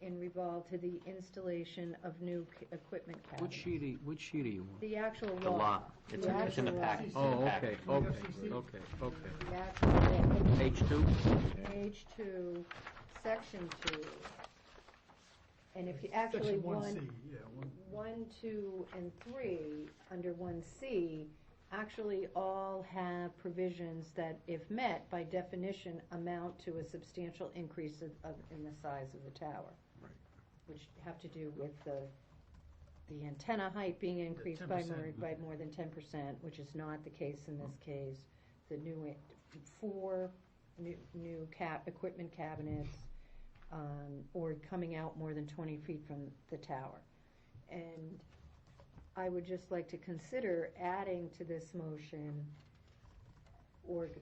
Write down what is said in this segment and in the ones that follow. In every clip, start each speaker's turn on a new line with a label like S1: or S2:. S1: in revolve to the installation of new c- equipment
S2: What
S1: cabinet.
S2: sheet, are you- what sheet are you on?
S1: The actual
S3: The
S1: law.
S3: law. It's in- it's in the
S1: actual
S3: packet. It's in the
S2: Oh, okay,
S3: packet.
S2: okay, okay, okay.
S1: The actual law.
S3: Page two?
S1: Page two, section two. And if you actually want,
S4: Section 1C, yeah, one-
S1: one, two, and three, under one C, actually all have provisions that, if met, by definition, amount to a substantial increase of, of, in the size of the tower.
S4: Right.
S1: Which have to do with the, the antenna height being increased by more,
S4: 10%.
S1: by more than ten percent, which is not the case in this case. The new, i- four new, new cap, equipment cabinets, um, or coming out more than twenty feet from the tower. And I would just like to consider adding to this motion or g-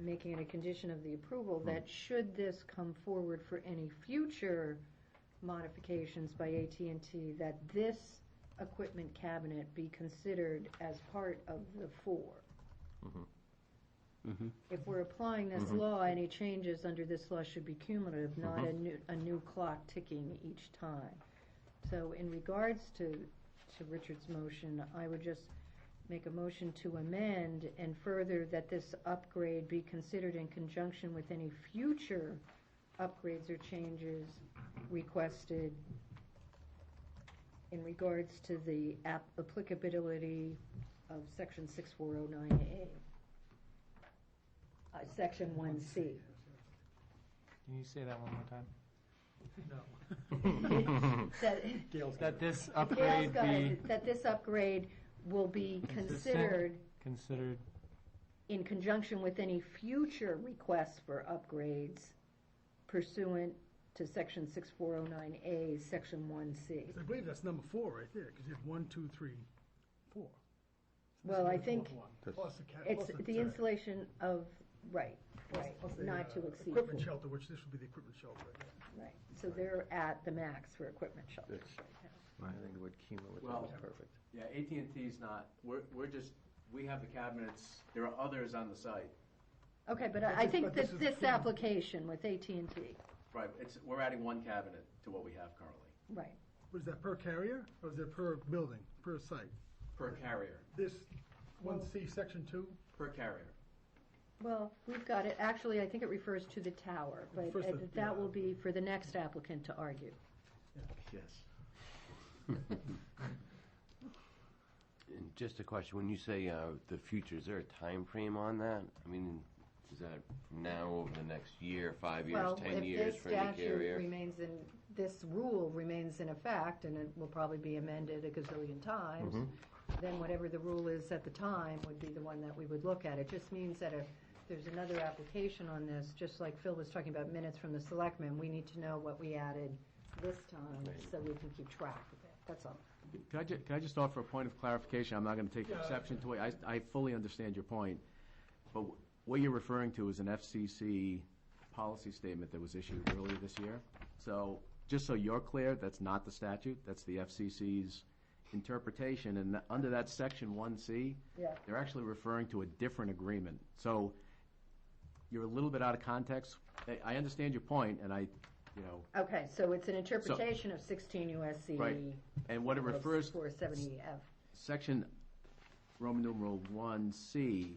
S1: making it a condition of the approval that should this come forward for any future modifications by AT&T, that this equipment cabinet be considered as part of the four.
S2: Mhm.
S1: If we're applying this law, any changes under this law should be cumulative, not a new, a new clock ticking each time. So in regards to, to Richard's motion, I would just make a motion to amend and further that this upgrade be considered in conjunction with any future upgrades or changes requested in regards to the app- applicability of section 6409A, uh, section 1C.
S5: Can you say that one more time?
S1: That-
S4: Gail's got
S5: That
S4: it.
S5: this
S1: Gail's
S5: upgrade
S1: got
S5: be
S1: it, That this upgrade will be
S5: Consistent.
S1: considered
S5: considered,
S1: in conjunction with any future requests for upgrades pursuant to section 6409A, section 1C.
S4: I believe that's number four right there, because you have one, two, three, four. So this
S1: Well,
S4: is
S1: I
S4: the
S1: think
S4: fourth one. Plus the ca-
S1: It's
S4: plus
S1: the installation of, right, right,
S4: plus the,
S1: not
S4: uh,
S1: to exceed.
S4: Equipment shelter, which this would be the equipment shelter. I guess.
S1: Right, so they're at the max for equipment shelters
S3: Yes.
S1: right now.
S3: I think the word cumulative
S6: Well-
S3: was perfect.
S6: Yeah, AT&T's not, we're, we're just, we have the cabinets, there are others on the site.
S1: Okay, but I I
S4: But this-
S1: think
S4: but this
S1: that
S4: is
S1: this
S4: true.
S1: application with AT&T,
S6: Right, it's, we're adding one cabinet to what we have currently,
S1: right,
S4: What is that, per carrier, or is that per building, per site?
S6: per carrier,
S4: This, one C, section two?
S6: per carrier.
S1: well, we've got it, actually, I think it refers to the tower, but
S4: First,
S1: uh,
S4: the-
S1: that
S4: yeah.
S1: will be for the next applicant to argue.
S3: Yes.
S7: And just a question, when you say uh, the future, is there a time frame on that? I mean, is that from now over the next year, five years,
S1: Well,
S7: 10
S1: if
S7: years
S1: this
S7: for any
S1: statute
S7: carrier?
S1: remains in, this rule remains in effect, and it will probably be amended a gazillion times, then whatever the rule is at the time would be the one that we would look at. It just means that if there's another application on this, just like Phil was talking about minutes from the selectmen, we need to know what we added this time, so we can keep track of it, that's all.
S8: Can I, ju- can I just offer a point of clarification? I'm not going to take exception to it. I, I fully understand your point. But wh- what you're referring to is an FCC policy statement that was issued earlier this year. So, just so you're clear, that's not the statute. That's the FCC's interpretation. And tha- under that section 1C,
S1: Yeah.
S8: they're actually referring to a different agreement. So, you're a little bit out of context. I- I understand your point, and I, you know,
S1: Okay, so it's an interpretation of 16 USC.
S8: Right. and what it refers to.
S1: 470F.
S8: Section Roman numeral 1C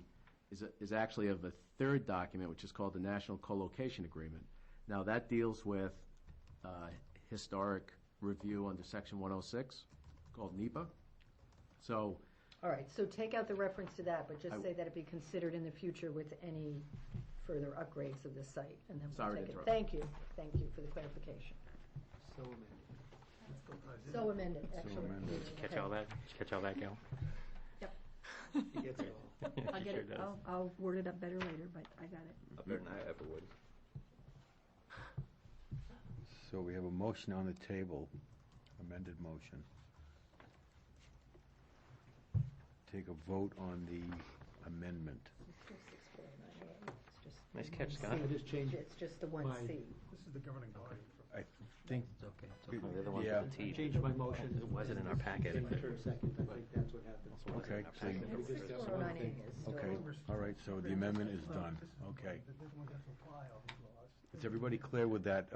S8: is a- is actually of a third document, which is called the National Colocation Agreement. Now, that deals with uh, historic review under Section 106, called NEPA. So,
S1: All right, so take out the reference to that, but
S8: I-
S1: just say that it be considered in the future with any further upgrades of the site, and then we'll
S8: Sorry to
S1: take it.
S8: interrupt.
S1: Thank you, thank you for the clarification.
S5: so amended.
S1: So amended, actually.
S3: Catch all that? Did you catch all that, Gail?
S4: He gets it all.
S1: I'll get it, I'll, I'll word it up better later, but I got it.
S3: Better than I ever would.
S9: So we have a motion on the table, amended motion. Take a vote on the amendment.
S1: It's just-
S3: Nice catch, Scott.
S1: I
S2: just changed
S1: It's just the one
S2: My-
S1: C.
S4: This is the governing body.
S9: I think,
S3: It's okay.
S9: okay.
S3: They're the ones
S9: Yeah.
S3: with the T.
S2: Changed my motion.
S3: It wasn't in our packet.
S2: Premature second, I think that's what happened.
S3: It wasn't in
S9: Okay,
S3: our
S9: so
S3: packet.
S2: Maybe just
S1: Six
S2: that's
S1: four oh
S2: one
S1: nine
S2: thing.
S1: A is still.
S9: okay, all right, so the amendment is done. Okay.
S4: They're the ones that have to apply all these laws.
S9: Is everybody clear with that uh,